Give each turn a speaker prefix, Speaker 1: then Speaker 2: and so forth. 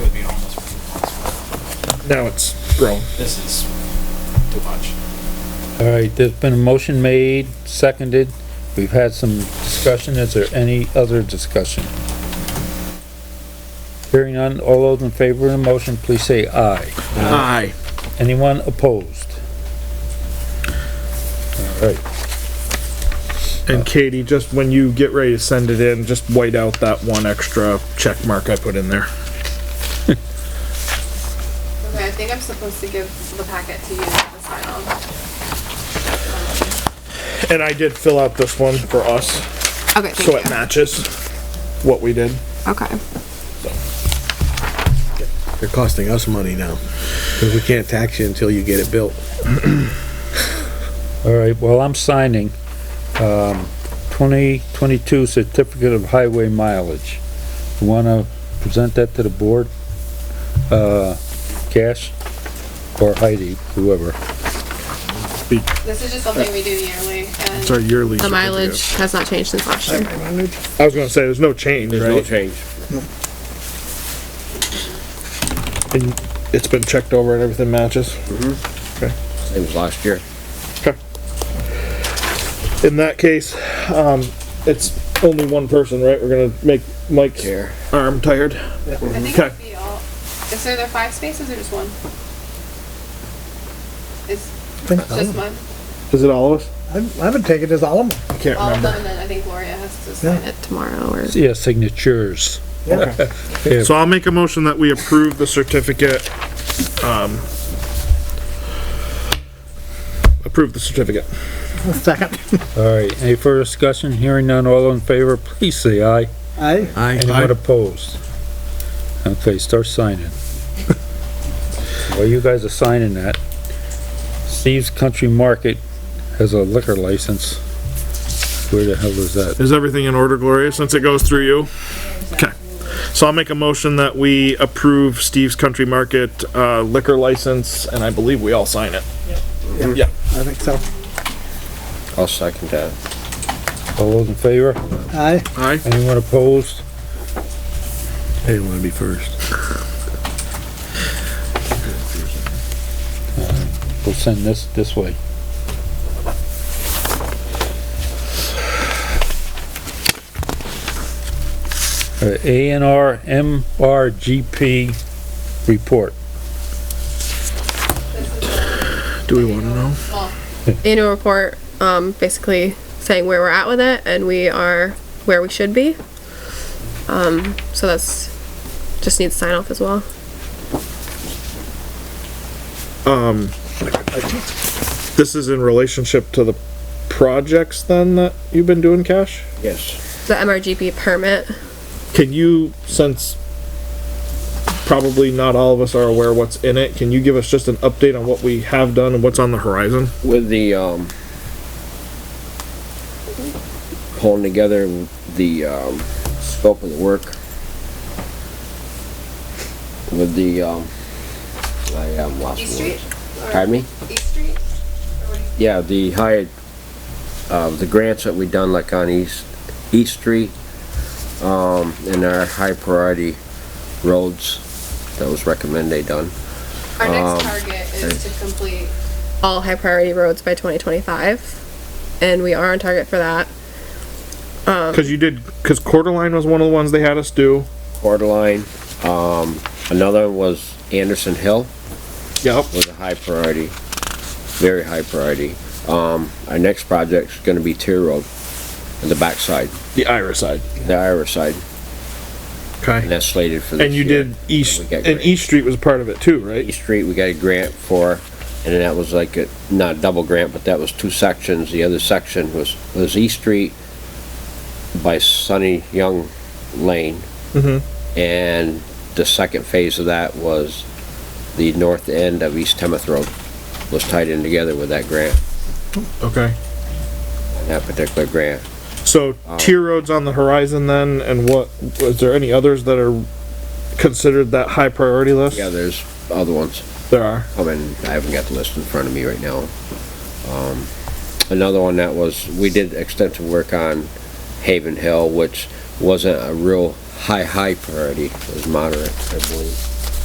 Speaker 1: now it's grown.
Speaker 2: This is too much.
Speaker 3: All right, there's been a motion made, seconded. We've had some discussion. Is there any other discussion? Hearing none, all those in favor of the motion, please say aye.
Speaker 1: Aye.
Speaker 3: Anyone opposed? All right,
Speaker 1: And Katie, just when you get ready to send it in, just white out that one extra check mark I put in there.
Speaker 4: Okay, I think I'm supposed to give the packet to you to sign on.
Speaker 1: And I did fill out this one for us,
Speaker 4: Okay,
Speaker 1: so it
Speaker 4: thank you.
Speaker 1: matches what we did.
Speaker 4: Okay.
Speaker 5: They're costing us money now, because we can't tax you until you get it built.
Speaker 3: all right, well, I'm signing, um, twenty twenty-two certificate of highway mileage. You wanna present that to the board? Uh, Cash or Heidi, whoever.
Speaker 4: This is just something we do yearly and
Speaker 1: It's our yearly.
Speaker 4: the
Speaker 1: certificate.
Speaker 4: mileage has not changed since last year.
Speaker 1: I was gonna say, there's no change, right?
Speaker 6: change.
Speaker 1: And It's been checked over and everything matches.
Speaker 6: Mm-hmm. Same as last year.
Speaker 1: In that case, um, it's only one person, right? We're gonna make Mike's
Speaker 6: Here.
Speaker 1: arm tired.
Speaker 4: I think
Speaker 1: Okay.
Speaker 4: it'd be all, is there there five spaces or just one? Is, just one?
Speaker 1: Is it all of us?
Speaker 5: I would take it as Alamo.
Speaker 1: I can't
Speaker 4: All of
Speaker 1: remember.
Speaker 4: them and then I think Gloria has to sign it tomorrow or.
Speaker 3: Yeah, signatures.
Speaker 1: So I'll make a motion that we approve the certificate, um, approve the certificate.
Speaker 7: Second.
Speaker 3: All right, any further discussion? Hearing none, all in favor, please say aye.
Speaker 7: Aye.
Speaker 3: Anyone opposed? Okay, start signing. While you guys are signing that, Steve's Country Market has a liquor license. Where the hell is that?
Speaker 1: Is everything in order, Gloria, since it goes through you? Okay. So I'll make a motion that we approve Steve's Country Market, uh, liquor license, and I believe we all sign it. Yeah.
Speaker 7: I think so.
Speaker 6: I'll second that.
Speaker 3: All those in favor?
Speaker 7: Aye.
Speaker 1: Aye.
Speaker 3: Anyone opposed?
Speaker 5: They want to be first.
Speaker 3: We'll send this this way. Uh, A and R M R G P report.
Speaker 1: Do we wanna know?
Speaker 4: annual report, um, basically saying where we're at with it and we are where we should be. Um, so that's, just needs sign off as well.
Speaker 1: This is in relationship to the projects then that you've been doing, Cash?
Speaker 6: Yes.
Speaker 4: The MRGP permit,
Speaker 1: Can you, since probably not all of us are aware what's in it, can you give us just an update on what we have done and what's on the horizon?
Speaker 6: With the, um, holding together the, um, scope of the work. With the, um, I am lost.
Speaker 4: East
Speaker 6: words.
Speaker 4: Street?
Speaker 6: Pardon me?
Speaker 4: East Street?
Speaker 6: Yeah, the high, uh, the grants that we done like on East, East Street, um, and our high priority roads that was recommended they done.
Speaker 4: Our
Speaker 6: Um,
Speaker 4: next target is to complete all high priority roads by twenty twenty-five. And we are on target for that.
Speaker 1: Cause you did, cause Quarterline was one of the ones they had us do.
Speaker 6: Quarterline, um, another was Anderson Hill
Speaker 1: Yep.
Speaker 6: was a high priority, very high priority. Um, our next project's gonna be Tier Road, on the backside,
Speaker 1: The Ira side.
Speaker 6: the Irish side, and
Speaker 1: Okay.
Speaker 6: that's slated for this
Speaker 1: And you
Speaker 6: year.
Speaker 1: did East,
Speaker 6: We got
Speaker 1: and
Speaker 6: grants.
Speaker 1: East Street was part of it too, right?
Speaker 6: East Street, we got a grant for, and that was like a, not a double grant, but that was two sections. The other section was, was East Street by Sunny Young Lane. And the second phase of that was the north end of East Temeth Road was tied in together with that grant,
Speaker 1: Okay.
Speaker 6: that particular grant.
Speaker 1: So
Speaker 6: Um,
Speaker 1: tier roads on the horizon then, and what, was there any others that are considered that high priority list?
Speaker 6: Yeah, there's other ones
Speaker 1: There are.
Speaker 6: coming. I haven't got the list in front of me right now. Um, another one that was, we did extensive work on Haven Hill, which wasn't a real high, high priority. It was moderate, I believe.